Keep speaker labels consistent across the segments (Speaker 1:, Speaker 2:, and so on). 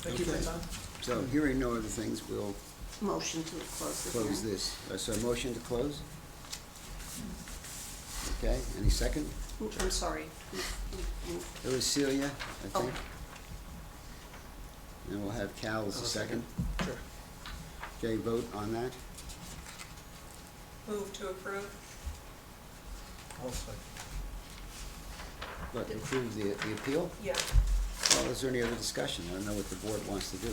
Speaker 1: Thank you for your time.
Speaker 2: So hearing no other things, we'll
Speaker 3: Motion to close the hearing.
Speaker 2: close this. Uh, So a motion to close? Okay, any second?
Speaker 3: Mm, I'm sorry. Mm, mm, mm.
Speaker 2: It was Celia, I
Speaker 3: Oh.
Speaker 2: think. And we'll have Cal as
Speaker 1: I'll
Speaker 2: a second.
Speaker 1: Sure.
Speaker 2: Okay, vote on that.
Speaker 4: Move to approve?
Speaker 1: I'll second.
Speaker 2: Look, approve the, the appeal.
Speaker 4: Yeah.
Speaker 2: Well, is there any other discussion? I don't know what the board wants to do.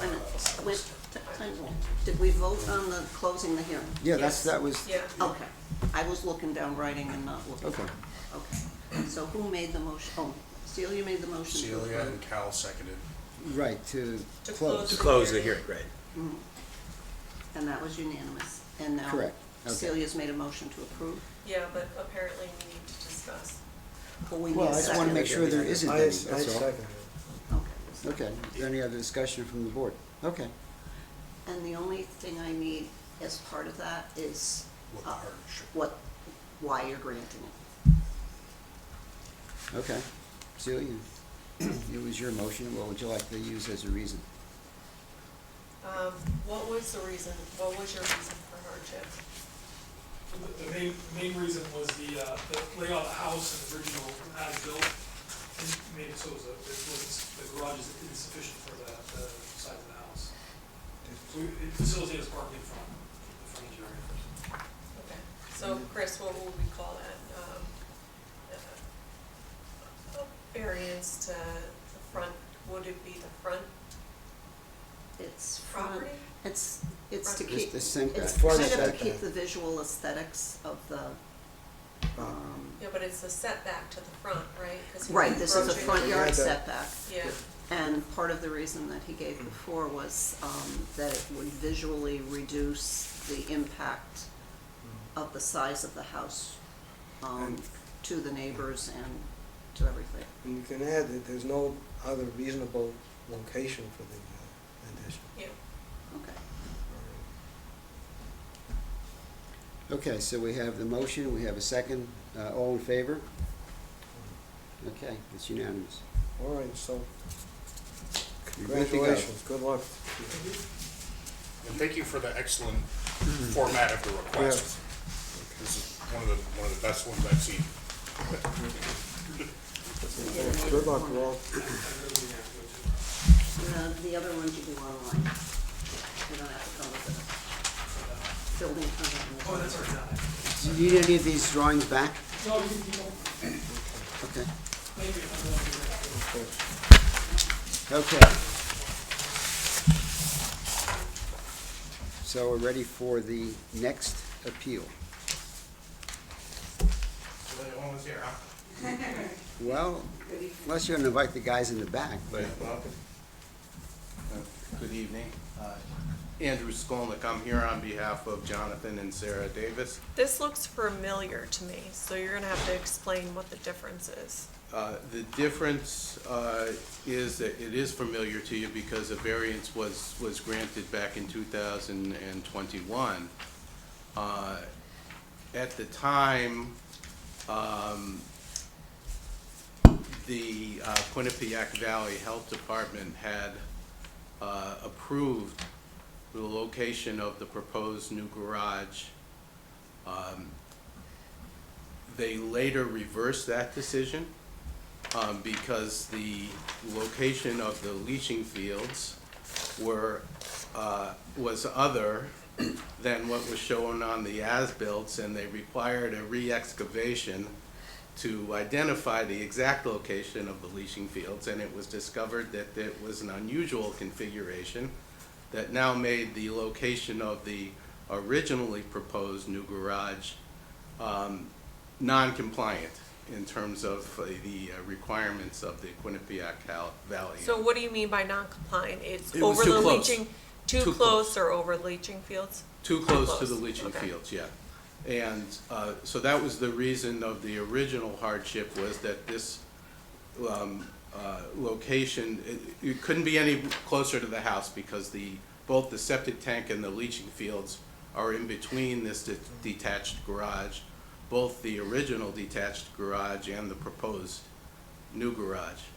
Speaker 3: Wait a minute. Wait, t- time out. Did we vote on the, closing the hearing?
Speaker 2: Yeah, that's,
Speaker 4: Yes.
Speaker 2: that was,
Speaker 4: Yeah.
Speaker 3: Okay. I was looking down writing and not looking.
Speaker 2: okay.
Speaker 3: Okay. So who made the motion? Oh, Celia made the motion to
Speaker 5: Celia and
Speaker 3: approve.
Speaker 5: Cal seconded.
Speaker 2: Right, to
Speaker 4: To
Speaker 2: close.
Speaker 6: To close the hearing, right.
Speaker 3: Mhm. Mm-hmm. And that was unanimous. And now.
Speaker 2: Correct. Okay.
Speaker 3: Celia's made a motion to approve.
Speaker 4: Yeah, but apparently we need to discuss.
Speaker 3: But we need
Speaker 2: Well,
Speaker 3: a
Speaker 2: I just want to
Speaker 3: second.
Speaker 2: make sure there isn't
Speaker 1: I,
Speaker 2: any,
Speaker 1: I
Speaker 2: that's all.
Speaker 1: second
Speaker 3: Okay.
Speaker 2: Okay, is there any other discussion from the board? Okay,
Speaker 3: And the only thing I need as part of that is
Speaker 5: What
Speaker 3: uh,
Speaker 5: hardship.
Speaker 3: what, why you're granting it.
Speaker 2: okay. Celia, it was your motion, what would you like to use as a reason?
Speaker 4: Um, What was the reason, what was your reason for hardship?
Speaker 7: The- The main, main reason was the, uh, the layout of the house and the original as-built, and made it so it was a- it was, the garage is insufficient for the, the size of the house. So we- It facilitates parking in front, the frontage area.
Speaker 4: Okay, so Chris, what would we call that? Um, uh, Variance to the front, would it be the front
Speaker 3: It's front,
Speaker 4: property?
Speaker 3: it's, it's to
Speaker 4: Front.
Speaker 3: keep,
Speaker 2: It's the
Speaker 3: it's
Speaker 2: setback.
Speaker 1: Front
Speaker 3: kind of to
Speaker 1: setback.
Speaker 3: keep the visual aesthetics of the, um,
Speaker 4: Yeah, but it's a setback to the front, right? 'Cause he's
Speaker 3: right, this is a
Speaker 4: approaching-
Speaker 3: front yard
Speaker 1: Yeah, the-
Speaker 3: setback.
Speaker 4: Yeah,
Speaker 3: And part of the reason that he gave before was, um, that it would visually reduce the impact
Speaker 1: Mm-hmm.
Speaker 3: of the size of the house, um,
Speaker 1: And-
Speaker 3: to the neighbors and to everything.
Speaker 1: And you can add that there's no other reasonable location for the uh, addition.
Speaker 4: yeah.
Speaker 3: Okay.
Speaker 2: Okay, so we have the motion, we have a second, uh, all in favor? Okay, it's unanimous.
Speaker 1: All right, so
Speaker 2: You're good to go.
Speaker 1: congratulations, good luck.
Speaker 5: And thank you for the excellent format of the request. This is one of the, one of the best ones I've seen.
Speaker 1: Good luck, you all.
Speaker 3: The, the other ones you do online. You don't have to come with a building permit.
Speaker 7: Oh, that's already done.
Speaker 2: Do you need any of these drawings back?
Speaker 7: No, you, you don't,
Speaker 2: Okay,
Speaker 7: thank you. I'm not doing that.
Speaker 2: okay. So we're ready for the next appeal. Well, unless you want to invite the guys in the back, but,
Speaker 8: Good evening. Uh, Andrew Skolnick, I'm here on behalf of Jonathan and Sarah Davis.
Speaker 4: This looks familiar to me, so you're gonna have to explain what the difference is.
Speaker 8: Uh, The difference uh, is that it is familiar to you because a variance was, was granted back in 2021. Uh, At the time, um, the uh, Quinnipiac Valley Health Department had uh, approved the location of the proposed new garage. Um, They later reversed that decision um, because the location of the leaching fields were, uh, was other than what was shown on the as-built, and they required a re-excavation to identify the exact location of the leaching fields, and it was discovered that it was an unusual configuration that now made the location of the originally proposed new garage um, non-compliant in terms of uh, the uh, requirements of the Quinnipiac Cal- Valley.
Speaker 4: So what do you mean by non-compliant? It's
Speaker 8: It was
Speaker 4: over
Speaker 8: too
Speaker 4: the
Speaker 8: close.
Speaker 4: leaching, too
Speaker 8: Too
Speaker 4: close or over leaching fields?
Speaker 8: Too close to the
Speaker 4: close,
Speaker 8: leaching
Speaker 4: okay.
Speaker 8: fields, yeah. And uh, so that was the reason of the original hardship was that this um, uh, location, it- it couldn't be any closer to the house because the, both the septic tank and the leaching fields are in between this de- detached garage, both the original detached garage and the proposed new garage.